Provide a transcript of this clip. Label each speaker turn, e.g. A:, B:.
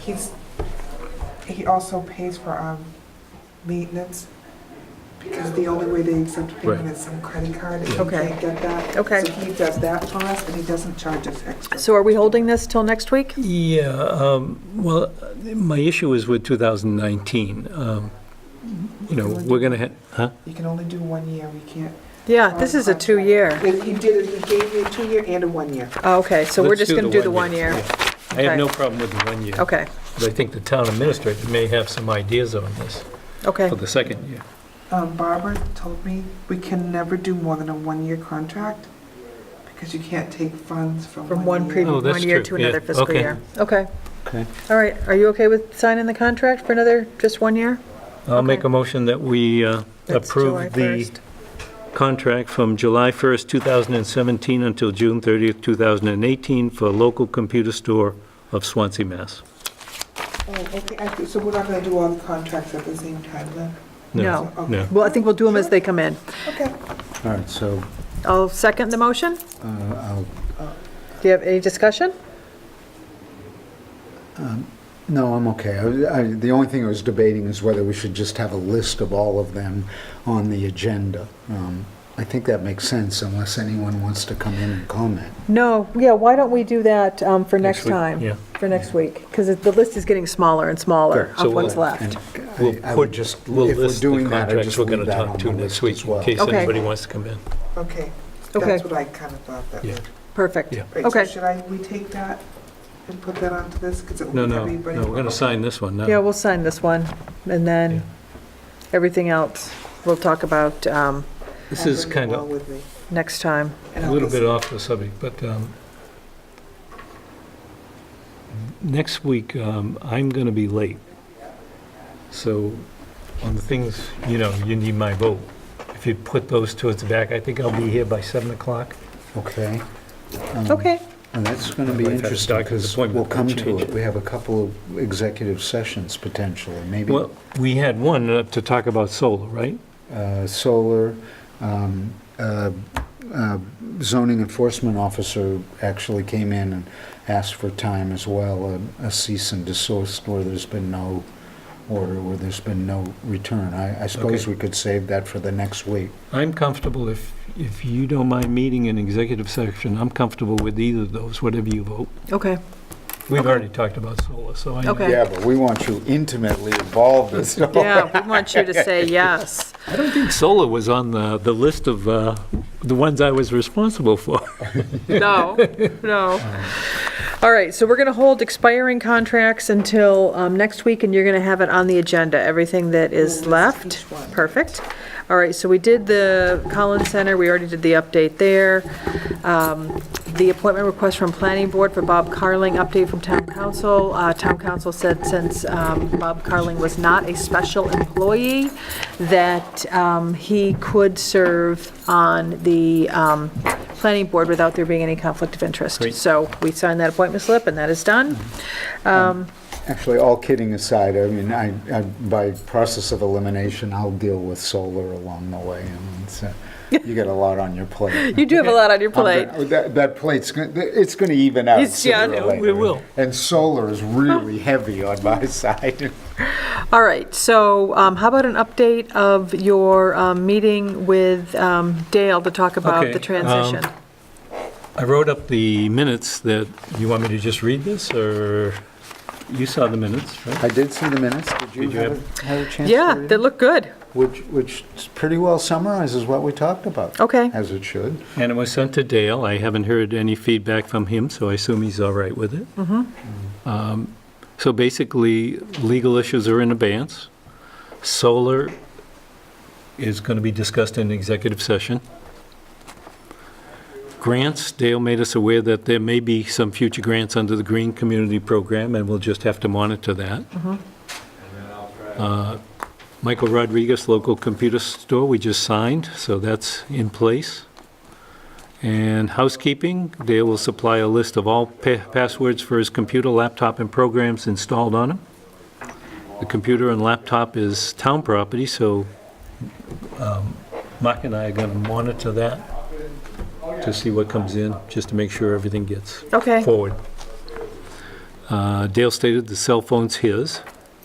A: He's, he also pays for, um, maintenance, because the only way they accept payment
B: Right.
A: is some credit card, and he
C: Okay.
A: can't get that.
C: Okay.
A: So he does that for us, and he doesn't charge us extra.
C: So are we holding this till next week?
B: Yeah, um, well, my issue is with 2019. Um, You know, we're going to, huh?
A: You can only do one year, we can't.
C: Yeah, Ah, this is a two-year.
A: If he did it, he gave me a two-year and a one-year.
C: Oh, Okay, so we're
B: Let's
C: just going to do the one
B: one-year.
C: year.
B: Yeah. I have
C: Okay.
B: no problem with the one year.
C: Okay,
B: But I think the town administrator may have some ideas on this
C: okay,
B: for the second year.
A: Um, Barbara told me we can never do more than a one-year contract, because you can't take funds from one
C: from one
A: year.
B: Oh,
C: previous,
B: that's
C: one year to
B: true. Yeah,
C: another fiscal
B: okay.
C: year. Okay,
B: Okay.
C: all right, are you okay with signing the contract for another, just one year?
B: I'll make
C: Okay.
B: a motion that we uh,
C: That's July
B: approve the
C: 1st.
B: contract from July 1st, 2017 until June 30th, 2018 for local computer store of Swansea, Mass.
A: Oh, okay, I see. so we're not gonna do all the contracts at the same time, then?
C: No.
A: Okay.
B: No.
C: Well, I think we'll do them as they come in.
A: Okay.
D: All right, so
C: I'll second the motion.
D: uh, I'll,
C: Do you have any discussion?
D: no, I'm okay. I- I- The only thing I was debating is whether we should just have a list of all of them on the agenda. Um, I think that makes sense unless anyone wants to come in and comment.
C: No, yeah, why don't we do that um, for next
B: week,
C: time?
B: yeah.
C: For next week, because the list is getting smaller and smaller
B: Good, so
C: of what's
B: we'll-
C: left.
D: And I-
B: We'll
D: I
B: put-
D: would just, if
B: we'll
D: we're
B: list the
D: doing that, I
B: contracts
D: just
B: we're gonna
D: leave that
B: talk
D: on
B: to
D: the
B: next
D: list
B: week
D: as well.
B: In case
C: Okay.
B: anybody wants to come in.
A: Okay,
C: Okay.
A: that's what I kind of thought that
B: Yeah.
A: would.
C: Perfect,
B: Yeah.
A: Right, so
C: okay.
A: should I, we take that and put that onto this, because it
B: No,
A: will be
B: no,
A: everybody?
B: no, we're going to sign this one now.
C: Yeah, we'll sign this one, and
B: Yeah.
C: then everything else, we'll talk about um,
B: This is kind of
C: next time.
B: a little bit off the subject, but um, next week, um, I'm going to be late. So on the things, you know, you need my vote. If you put those towards the back, I think I'll be here by 7 o'clock.
D: Okay.
B: Mm-hmm.
D: Um,
C: Okay,
D: And that's going to
B: I've
D: be
B: had a
D: interesting
B: doctor's
D: because
B: appointment
D: we'll
B: that
D: come to
B: changed.
D: it. We have a couple of executive sessions potentially, maybe
B: Well, we had one uh, to talk about solar, right?
D: uh, solar. um, uh, uh, Zoning enforcement officer actually came in and asked for time as well, a- a cease and desist where there's been no order, where there's been no return. I I suppose
B: Okay.
D: we could save that for the next week.
B: I'm comfortable, if, if you don't mind meeting in executive section, I'm comfortable with either of those, whatever you vote.
C: okay,
B: We've already talked about solar, so I.
C: Okay.
D: Yeah, but we want you intimately involved in stuff.
C: yeah, we want you to say yes.
B: I don't think solar was on the, the list of uh, the ones I was responsible for.
C: No, no. All right, so we're going to hold expiring contracts until um, next week, and you're going to have it on the agenda, everything that is
A: We'll list
C: left.
A: each one.
C: Perfect. All right, so we did the Collins Center, we already did the update there. Um, The appointment request from Planning Board for Bob Carling, update from Town Council. Uh, Town Council said since um, Bob Carling was not a special employee, that um, he could serve on the um, Planning Board without there being any conflict of interest.
B: Great.
C: So we signed that appointment slip, and that is done.
D: Mm-hmm.
C: Um,
D: Actually, all kidding aside, I mean, I, I- by process of elimination, I'll deal with solar along the way. I mean, it's, uh, You get a lot on your plate.
C: You do have a lot on your
D: I'm
C: plate.
D: gonna- Um, That, that plate's, gonna- it's going to even out
C: It's- yeah, I
D: sooner or
C: know,
D: later.
B: we will.
D: And solar is really heavy on my side.
C: All right, so um, how about an update of your um, meeting with um, Dale to talk about
B: Okay,
C: the transition?
B: um, I wrote up the minutes that, you want me to just read this, or you saw the minutes, right?
D: I did see the minutes. Did you
B: Did you
D: have a- have a chance
C: Yeah,
D: to read
C: they
D: it?
C: look good.
D: Which, which pretty well summarizes what we talked about.
C: Okay.
D: As it should.
B: And it was sent to Dale. I haven't heard any feedback from him, so I assume he's all right with it. Um, So basically, legal issues are in abeyance. Solar is going to be discussed in executive session. Grants, Dale made us aware that there may be some future grants under the Green Community Program, and we'll just have to monitor that. Uh, Michael Rodriguez, local computer store, we just signed, so that's in place. And housekeeping, Dale will supply a list of all pa- passwords for his computer, laptop, and programs installed on him. The computer and laptop is town property, so um, Mark and I are going to monitor that to see what comes in, just to make sure everything gets
C: Okay,
B: forward. Um, Uh, Dale stated the cell phone's his.